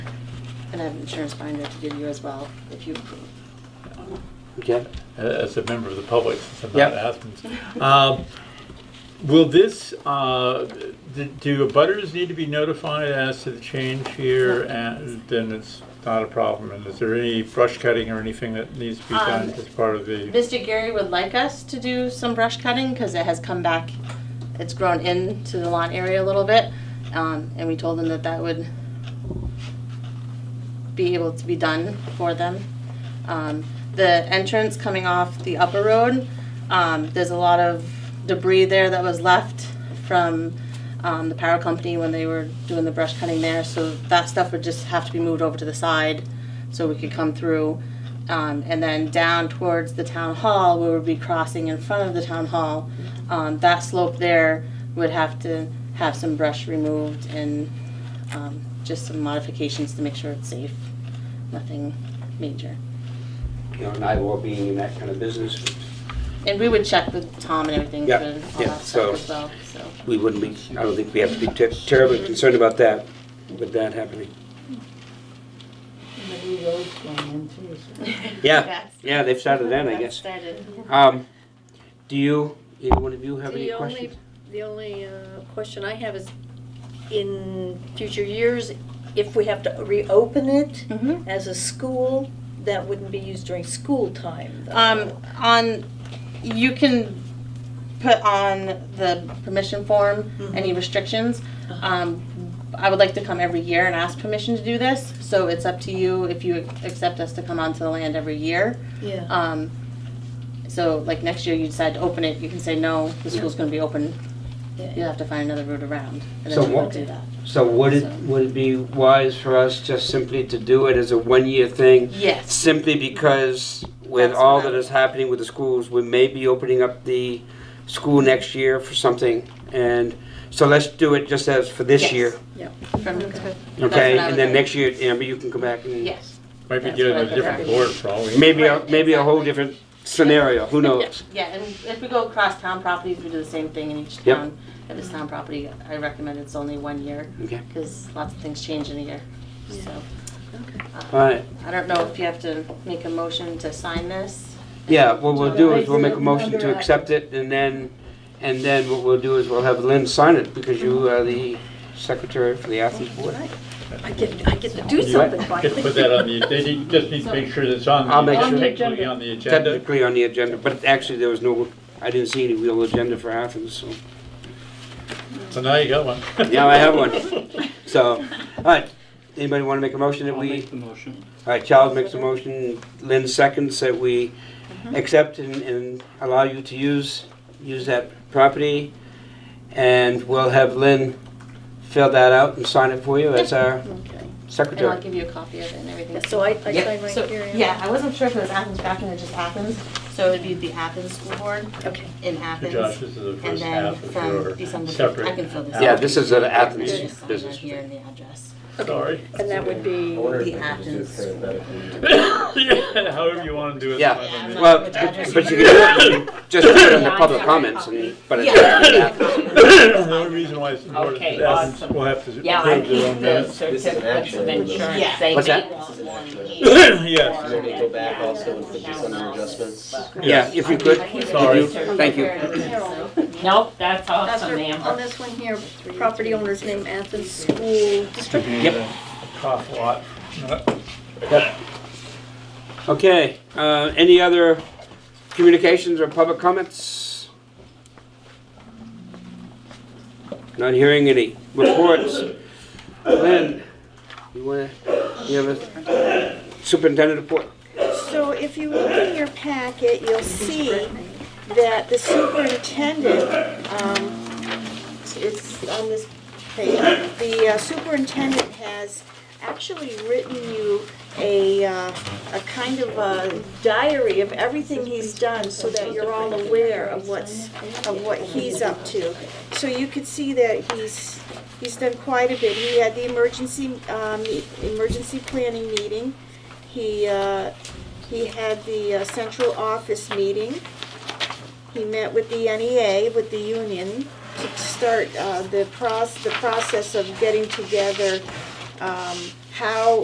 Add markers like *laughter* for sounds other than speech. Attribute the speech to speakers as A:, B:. A: and I have an insurance binder to give you as well, if you approve.
B: Okay.
C: uh, As a member of the public, since I'm
B: Yep.
C: not Athens. Um, Will this, uh, d- do abutters need to be notified as to the change here? And then it's not a problem. And is there any brush cutting or anything that needs to be
A: Um,
C: done as part of the?
A: Mr. Gary would like us to do some brush cutting because it has come back, it's grown into the lawn area a little bit. Um, and we told him that that would be able to be done for them. Um, the entrance coming off the upper road, um, there's a lot of debris there that was left from, um, the power company when they were doing the brush cutting there. So that stuff would just have to be moved over to the side so we could come through. Um, and then down towards the town hall, we would be crossing in front of the town hall. Um, that slope there would have to have some brush removed and, um, just some modifications to make sure it's safe. Nothing major.
B: You know, and I will be in that kind of business.
A: And we would check with Tom and everything for
B: Yeah,
A: all
B: yeah,
A: that
B: so-
A: stuff as well, so.
B: *laughs* We wouldn't be, I don't think we have to be ter- terribly concerned about that, with that happening.
D: The new road's going in too, so.
B: Yeah,
A: Yes.
B: yeah, they've started then, I
A: That
B: guess.
A: started.
B: Um, do you, either one of you have any
E: The only,
B: questions?
E: the only uh, question I have is, in future years, if we have to reopen it
A: Mhm.
E: as a school, that wouldn't be used during school time, though.
A: Um, on, you can put on the permission form any restrictions. Um, I would like to come every year and ask permission to do this, so it's up to you if you accept us to come onto the land every year.
E: Yeah,
A: Um, so like next year you decide to open it, you can say, no, the school's gonna be open, you'll
E: yeah.
A: have to find another route around, and
B: So
A: then we
B: what-
A: won't do that.
B: So would
A: So-
B: it, would it be wise for us just simply to do it as a one-year thing?
A: Yes.
B: Simply because with
A: That's
B: all
A: what I-
B: that is happening with the schools, we may be opening up the school next year for something. And so let's do it just as for this
A: Yes.
B: year,
A: From- That's
B: okay?
A: what I
B: And
A: would
B: then
A: do.
B: next year, Amber, you can come back and
A: Yes,
C: Might be
A: That's
C: get
A: what I
C: a different board for all we.
B: maybe, a-
A: Right,
B: maybe a whole
A: exactly.
B: different scenario, who knows?
A: yeah, and if we go across town properties, we do the same thing in each
B: Yep.
A: town. If it's town property, I recommend it's only one year,
B: Okay,
A: because lots of things change in a year, so.
B: all right.
A: I don't know if you have to make a motion to sign this.
B: Yeah, what we'll do is we'll make a motion
D: Under
B: to
D: act.
B: accept it and then, and then what we'll do is we'll have Lynn sign it because you are the secretary for the Athens Board.
E: I get, I get to do
B: You what?
E: something by
C: Just put that on the, they need- just need to make sure that's on. the-
B: I'll make sure.
C: technically On the agenda.
B: Technically on the agenda, but actually there was no, I didn't see any real agenda for Athens, so.
C: So now you got one.
B: Yeah, I have
C: *laughs*
B: one.
A: *laughs*
B: So, all right, anybody want to make a motion that
F: I'll
B: we,
F: make the motion.
B: all right, Charles makes a motion, Lynn seconds that we
A: Mm-hmm.
B: accept and, and allow you to use, use that property. And we'll have Lynn fill that out and sign it for you as
E: *laughs*
B: our
E: Okay.
A: And I'll
B: secretary.
A: give you a copy of it and everything.
E: Yeah, So I, I
B: Yeah.
E: sign
A: So,
E: right here.
A: yeah, I wasn't sure if it was Athens Grafton or just Athens, so it'd be the Athens School Board
E: Okay.
A: in
C: So
A: Athens.
C: Josh, this is the
A: And
C: first
A: then
C: half of
A: from
C: your
A: December, fif- I can fill
C: separate.
A: this out.
B: Yeah, this is an
A: I
B: Athens
A: just signed right
B: business.
A: here in the address.
C: Sorry.
E: And that would be,
A: The Athens. School Board.
C: *laughs* Yeah, However you want to do it.
B: Yeah.
C: fine with me.
B: Well, but but you can do it,
A: *laughs*
B: just put it in the public comments and, but it's Athens.
C: *laughs* The only reason why it's important is
G: Okay,
C: that Athens
G: awesome.
C: will have to.
G: Yeah, I
C: approve their
G: keep
C: own
G: the
C: minutes.
G: certificates of insurance. They
B: What's
G: make
B: that?
G: them one each.
C: *laughs* Yes.
H: Is there any go back also and put this under adjustments?
B: Yeah, if you could,
C: Sorry.
B: thank you.
G: Nope, that's
E: that's
G: awesome,
E: our- on
G: Amber.
E: this one here, property owner's name Athens School District.
B: Yep.
C: Cough a lot.
B: Okay, uh, any other communications or public comments? Not hearing any reports. Lynn, you wanna, you have a superintendent report?
I: So if you look in your packet, you'll see that the superintendent, um, it's on this page, the uh, superintendent has actually written you a, uh, a kind of a diary of everything he's done so that you're all aware of what's, of what he's up to. So you could see that he's, he's done quite a bit. He had the emergency, um, emergency planning meeting. He, uh, he had the uh, central office meeting. He met with the NEA, with the union, to start uh, the proc, the process of getting together um, how